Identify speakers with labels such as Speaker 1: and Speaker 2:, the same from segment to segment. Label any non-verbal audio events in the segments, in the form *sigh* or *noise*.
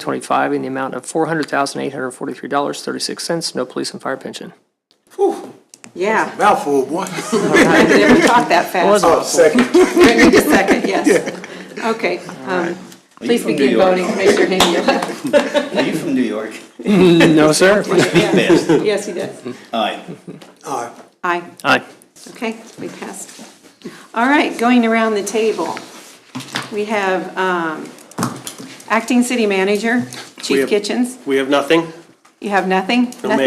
Speaker 1: 2025 in the amount of $400,843.36, no police and fire pension.
Speaker 2: Yeah,
Speaker 3: oh,
Speaker 4: Mouthful, boy.
Speaker 2: I never talk that fast.
Speaker 4: Oh, second.
Speaker 2: *laughs* I need a second, yes. Okay, um, please
Speaker 5: from
Speaker 2: begin
Speaker 5: New York?
Speaker 2: voting, Commissioner Henry.
Speaker 5: Are you from New York?
Speaker 1: No, sir.
Speaker 5: Best.
Speaker 2: Yes, he does.
Speaker 5: Aye.
Speaker 4: All right.
Speaker 2: Aye.
Speaker 1: Aye.
Speaker 2: Okay, we passed. All right, going around the table, we have um, acting city manager,
Speaker 3: We
Speaker 2: Chief
Speaker 3: have-
Speaker 2: Kitchens.
Speaker 3: We have nothing?
Speaker 2: You have nothing?
Speaker 3: No, ma'am.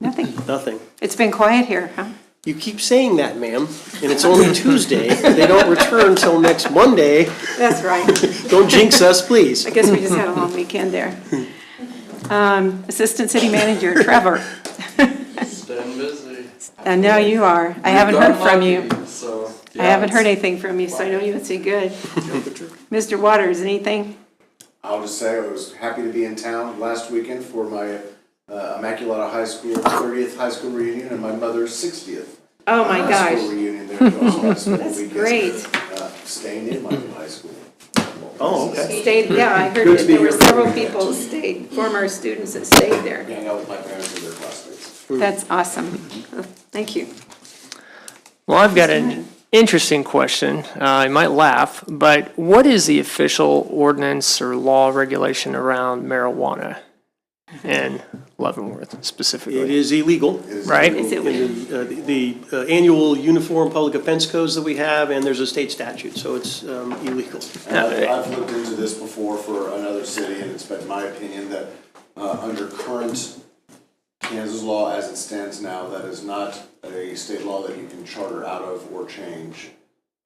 Speaker 2: Nothing? Nothing?
Speaker 3: Nothing.
Speaker 2: It's been quiet here, huh?
Speaker 3: You keep saying that, ma'am, and it's only Tuesday. They don't return till next Monday.
Speaker 2: That's right.
Speaker 3: Don't jinx us, please.
Speaker 2: I guess we just had a long weekend there. Um, Assistant City Manager Trevor,
Speaker 6: Staying busy.
Speaker 2: and now you are. I haven't heard from you.
Speaker 6: So.
Speaker 2: I haven't heard anything from you, so I know you must be
Speaker 7: *laughs*
Speaker 2: good. Mr. Waters, anything?
Speaker 7: I'll just say I was happy to be in town last weekend for my uh, Immaculata High School 30th high school reunion and my mother's 60th.
Speaker 2: Oh, my
Speaker 7: High school
Speaker 2: gosh.
Speaker 7: reunion there. So I spent the
Speaker 2: *laughs* That's
Speaker 7: weekends,
Speaker 2: great.
Speaker 7: uh, Staying in Michael High School.
Speaker 3: Oh, okay.
Speaker 2: Stayed, yeah, I heard
Speaker 7: Good
Speaker 2: that
Speaker 7: to be
Speaker 2: there were
Speaker 7: here.
Speaker 2: several people who stayed, former students that stayed there.
Speaker 7: Hang out with my parents and their classmates.
Speaker 2: That's awesome. Thank you.
Speaker 1: Well, I've got an interesting question. Uh, I might laugh, but what is the official ordinance or law regulation around marijuana in Leavenworth
Speaker 3: It
Speaker 1: specifically?
Speaker 3: is illegal.
Speaker 1: Right?
Speaker 2: Is it weird?
Speaker 3: And uh, The uh, annual uniform public offense codes that we have, and there's a state statute, so it's um, illegal.
Speaker 7: And I've, I've looked into this before for another city, and it's been my opinion that, uh, under current Kansas law as it stands now, that is not a state law that you can charter out of or change,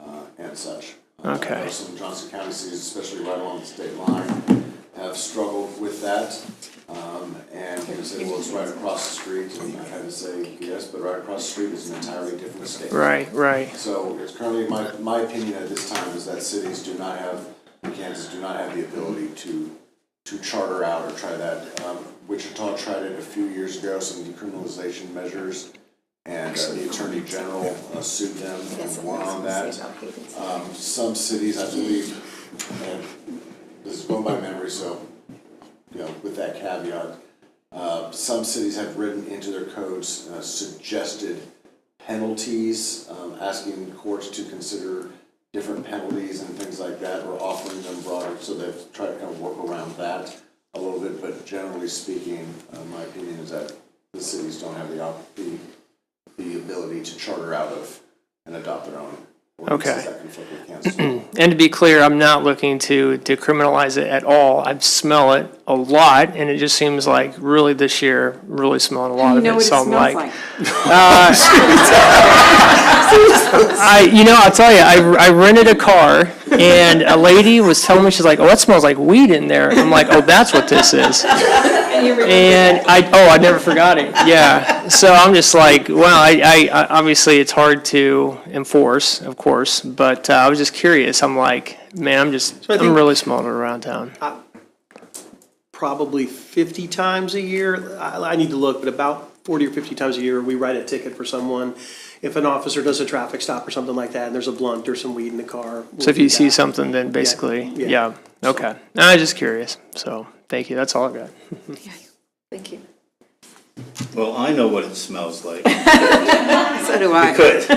Speaker 7: uh, and such. Uh, I
Speaker 1: Okay.
Speaker 7: know Some Johnson County cities, especially right along the state line, have struggled with that. Um, and you say, well, it's right across the street, and I had to say, yes, but right across the street is an entirely different state.
Speaker 1: Right, right.
Speaker 7: So it's currently, my, my opinion at this time is that cities do not have, in Kansas do not have the ability to, to charter out or try that. Um, Wichita tried it a few years ago, some decriminalization measures, and uh, the attorney general uh, sued them and won on that. Um, some cities, I believe, and this is going by memory, so, you know, with that caveat, uh, some cities have written into their codes uh, suggested penalties, um, asking courts to consider different penalties and things like that, or offering them broader, so they've tried to kind of work around that a little bit, but generally speaking, uh, my opinion is that the cities don't have the op, the, the ability to charter out of and adopt their own ordinances
Speaker 1: Okay.
Speaker 7: that conflict with Kansas law.
Speaker 1: And to be clear, I'm not looking to decriminalize it at all. I smell it a lot, and it just seems like really this year, really smelling a lot
Speaker 2: You
Speaker 1: of
Speaker 2: know
Speaker 1: it.
Speaker 2: what it
Speaker 1: So I'm
Speaker 2: smells
Speaker 1: like,
Speaker 2: like?
Speaker 1: I, you know, I'll tell you, I, I rented a car and a lady was telling me, she's like, oh, that smells like weed in there. I'm like, oh, that's what this is.
Speaker 2: And you remember
Speaker 1: And I, oh, I never forgot it. Yeah. So I'm just like, well, I, I, I- obviously it's hard to enforce, of course, but uh, I was just curious. I'm like, man, I'm just,
Speaker 3: I
Speaker 1: I'm
Speaker 3: think-
Speaker 1: really smelling it around town.
Speaker 3: Probably 50 times a year, I I need to look, but about 40 or 50 times a year, we write a ticket for someone. If an officer does a traffic stop or something like that, and there's a blunt or some weed in the car. we'll
Speaker 1: So if you
Speaker 3: do
Speaker 1: see
Speaker 3: that.
Speaker 1: something, then basically,
Speaker 3: yeah.
Speaker 1: yeah, okay. I was just curious. So thank you. That's all I've got.
Speaker 2: Thank you.
Speaker 5: Well, I know what it smells like.
Speaker 2: So do I.
Speaker 5: Could,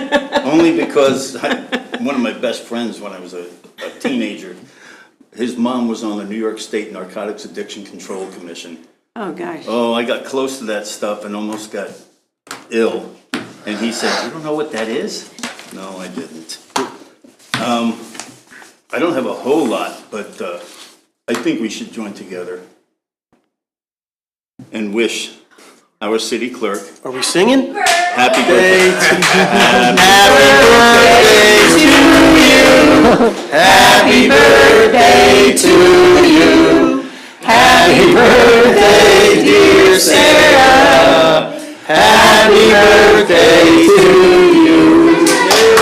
Speaker 5: only because I- one of my best friends when I was a a teenager, his mom was on the New York State Narcotics Addiction Control Commission.
Speaker 2: Oh, gosh.
Speaker 5: Oh, I got close to that stuff and almost got ill. And he said, "You don't know what that is?" No, I didn't. Um, I don't have a whole lot, but uh, I think we should join together and wish our city clerk
Speaker 3: Are we singing?
Speaker 5: happy birthday.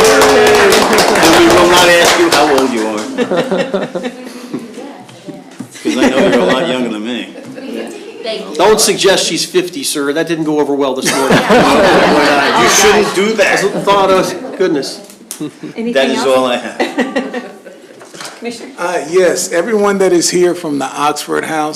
Speaker 5: And we will not ask you how old you are. Because I know you're a lot younger than me.
Speaker 3: Don't suggest she's 50, sir. That didn't go over well this morning.
Speaker 5: *laughs* *laughs* You shouldn't do that.
Speaker 3: Thought of, goodness.
Speaker 2: Anything
Speaker 5: That is
Speaker 2: else?
Speaker 5: all I have.
Speaker 2: Commissioner?
Speaker 4: Uh, yes, everyone that is here from the Oxford House